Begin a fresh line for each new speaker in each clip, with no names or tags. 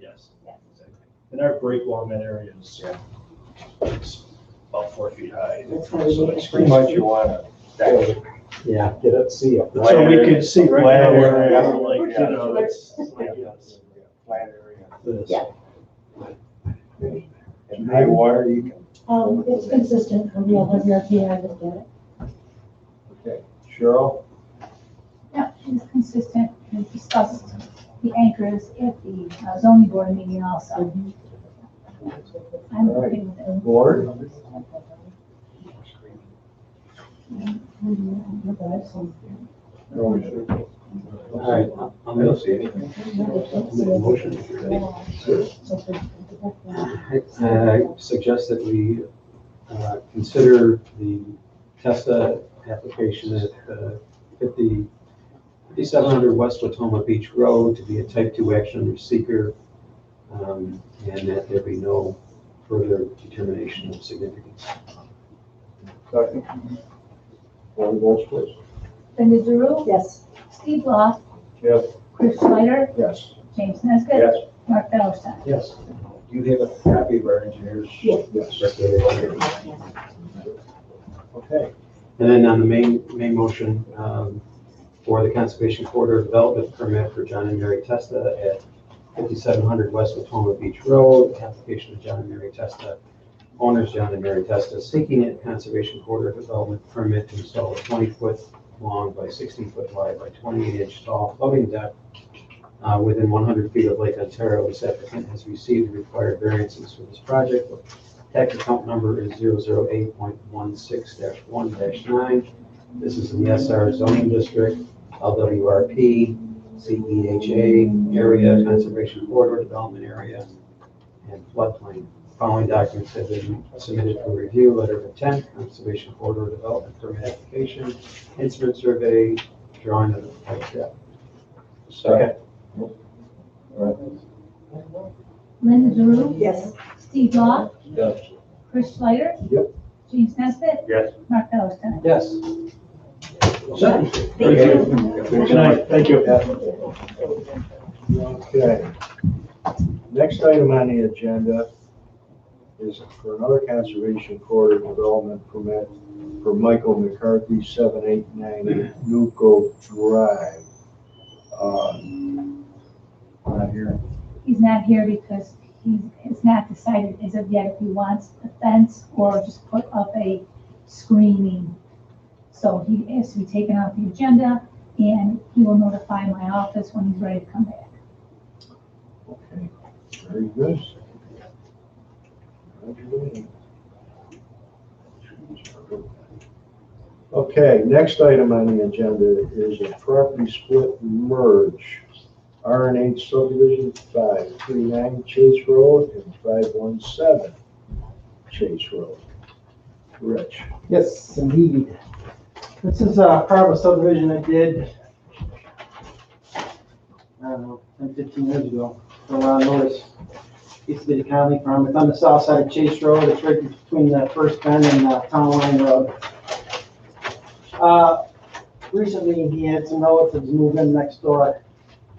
Yes.
Yes.
And our break along that area is it's about four feet high.
That's how
So
we-
it's
Pretty much you wanna,
Yeah, get up, see up.
So we can see right
Land
there,
area.
like, you know, it's, like, yes.
flat area.
This.
Yeah.
In high water, you can,
Um, it's consistent from the other RFP, I looked at it.
okay. Cheryl,
Yeah, she's consistent, we discussed the anchors at the uh, zoning board meeting also. I'm okay with it.
Lord,
Look at that, Mm-hmm. so-
All right.
I don't see anything.
Uh, I suggest that we uh, consider the TESTA application at uh, 50 5700 West Watoma Beach Road to be a type 2 action under seeker, um, and that there be no further determination of significance.
Second. Board votes, please.
Linda Drew,
Yes.
Steve Law,
Yes.
Chris Snyder,
Yes.
James Nesbitt.
Yes.
Mark Fowlerstein.
Yes.
Do you have a copy of our engineers?
Yes.
Yes. Okay.
And then on the main, main motion, um, for the Conservation Corridor Development Permit for John and Mary Testa at fifty-seven hundred West Watoma Beach Road, application of John and Mary Testa, owners John and Mary Testa, seeking a Conservation Corridor Development Permit to install a twenty-foot long by sixteen-foot wide by twenty-eight-inch tall floating deck uh, within one hundred feet of Lake Ontario. This applicant has received the required variances for this project. Tax account number is 008.16-1-9. This is in the SR zoning district, LWRP, CEHA E area, conservation corridor development area, and floodplain. Following documents have been submitted for review, letter of intent, conservation corridor development permit application, instrument survey, drawing of the project.
Second. All
Linda Drew,
Yes.
Steve Law,
right. Yes.
Chris Snyder.
Yep.
James Nesbitt.
Yes.
Mark Fowlerstein.
Yes.
Thank you.
Good night, thank you.
Okay. Next item on the agenda is for another conservation corridor development permit for Michael McCarthy, seven eight nine Nuco Drive. Uh, Not here.
He's not here because he has not decided as of yet if he wants a fence or just put up a screening. So he has to be taken off the agenda and he will notify my office when he's ready to come back.
Okay, very good. Okay, next item on the agenda is a property split merge. R and H subdivision five three nine Chase Road and five one seven Chase Road. Rich,
Yes, indeed. This is uh, part of a subdivision I did, I don't know, 10, 15 years ago, for Ron Lewis. Used to be the county farm. It's on the south side of Chase Road. It's right between the first bend and the town line road. Uh, Recently, he had some relatives move in next door.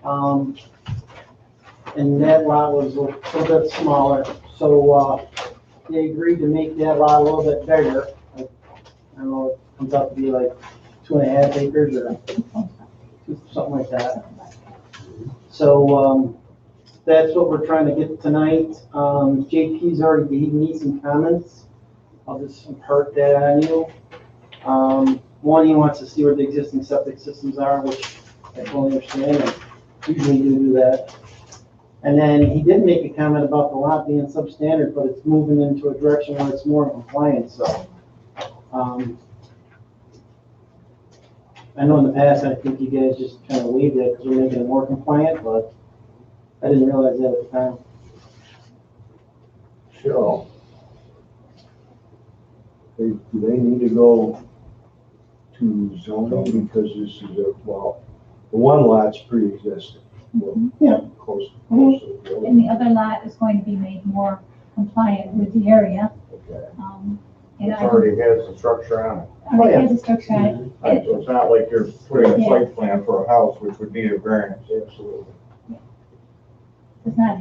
um, And that lot was a little bit smaller, so uh, they agreed to make that lot a little bit bigger. I don't know, it comes out to be like two and a half acres or something like that. So, um, that's what we're trying to get tonight. Um, JP's already gave me some comments. I'll just impart that on you. Um, one, he wants to see where the existing septic systems are, which I totally understand, and usually you do that. And then he did make a comment about the lot being substandard, but it's moving into a direction where it's more compliant, so. Um, I know in the past, I think you guys just kind of waived that because we're making it more compliant, but I didn't realize that at the time.
Cheryl. They, do they need to go to zoning because this is a, well, the one lot's pre-existing. Well,
Yeah. Mm-hmm.
Close, close to the other.
And the other lot is going to be made more compliant with the area.
Okay.
um, And
It
I already
already has the structure on it.
has a structure on it.
Right, So it's not like you're putting a site plan for a house, which would need a variance.
Absolutely.
It's not